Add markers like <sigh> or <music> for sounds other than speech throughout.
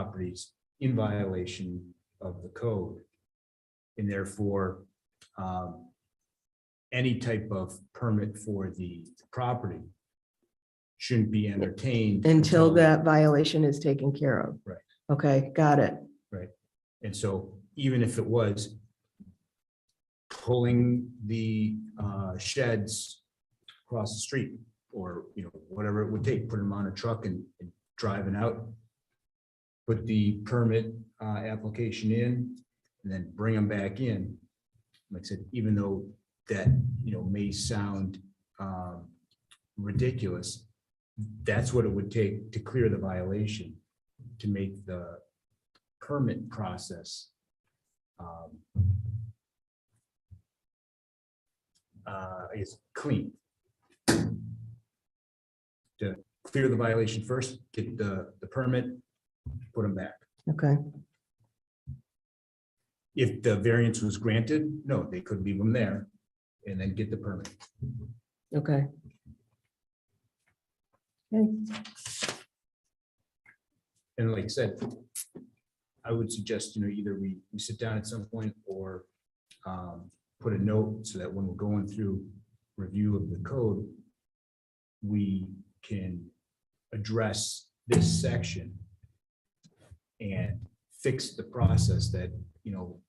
properties in violation of the code. And therefore, um, any type of permit for the property shouldn't be entertained. Until that violation is taken care of. Right. Okay, got it. And so even if it was pulling the uh, sheds across the street or, you know, whatever it would take, put them on a truck and and driving out, put the permit uh, application in and then bring them back in. Like I said, even though that, you know, may sound um, ridiculous, that's what it would take to clear the violation, to make the permit process. um, uh, Is clean. To clear the violation first, get the, the permit, put them back. Okay, If the variance was granted, no, they could leave them there and then get the permit. okay. Okay, And like I said, I would suggest, you know, either we, we sit down at some point or um, put a note so that when we're going through review of the code, we can address this section and fix the process that, you know,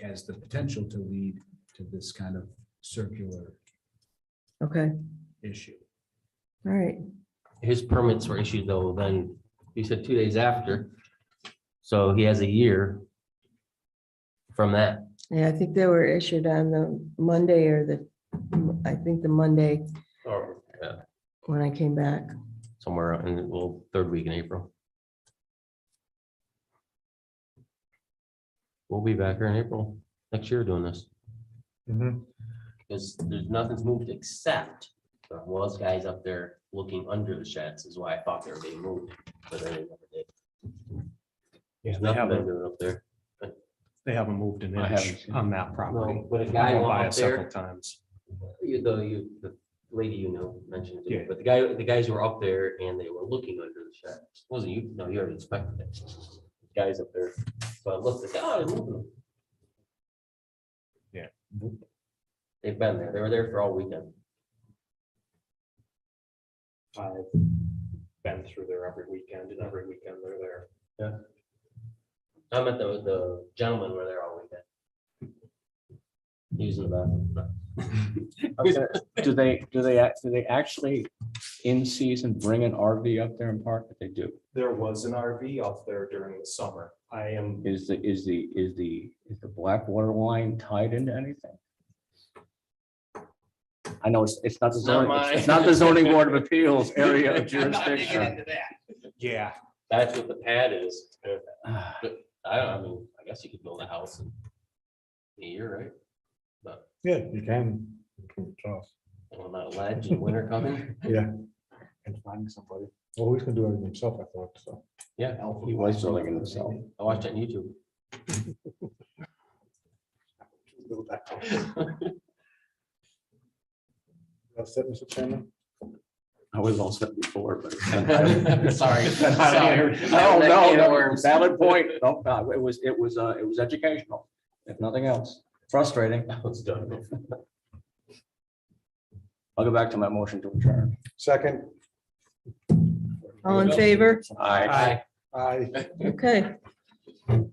has the potential to lead to this kind of circular Okay, issue. all right. his permits were issued though, then he said two days after. So he has a year from that. Yeah, I think they were issued on the Monday or the, I think the Monday Or. yeah, when I came back. Somewhere in the, well, third week in April. We'll be back here in April next year doing this. Mm-hmm. Because there's nothing's moved except there was guys up there looking under the sheds is why I thought they were being moved, but then they never did. Yeah, they Nothing been haven't, doing up there. they haven't moved an I inch haven't. on that property. No, But a I guy went by went it up there. several times. You, the, you, the lady you know mentioned, it to me, Yeah. but the guy, the guys were up there and they were looking under the shed. Wasn't you, no, you already inspected it. Guys up there, so I looked, like, oh, they're moving them. Yeah. They've been there, they were there for all weekend. I've been through there every weekend and every weekend they're there. I met the, the gentlemen were there all weekend. Using the bathroom. but- Okay, Do they, do they, act- do they actually in season bring an RV up there and park? They do. There was an RV up there during the summer. I am, Is the, is the, is the, is the Blackwater line tied into anything? I know it's, it's not the Not zoning, it's- it's mine. not the zoning <laughs> board of appeals area of jurisdiction. <sighs> yeah, That's what the pad is. I don't, I mean, I guess you could build a house in a year, right? But Yeah, you can. It's tough. on that ledge in winter coming, And finding somebody. Well, he's gonna do everything himself, I thought, so. yeah, He was selling it himself. I watched it on <laughs> YouTube. <laughs> That's it, Mr. Chairman. I was all set before, <laughs> but. <laughs> Sorry. Sorry. No, That no, can of no, worms. <laughs> valid point. No, no, it was, it was, uh, it was educational, if nothing else. Frustrating. That was done. I'll go back to my motion to adjourn. Second, All in favor? Aye. Aye. I. Okay.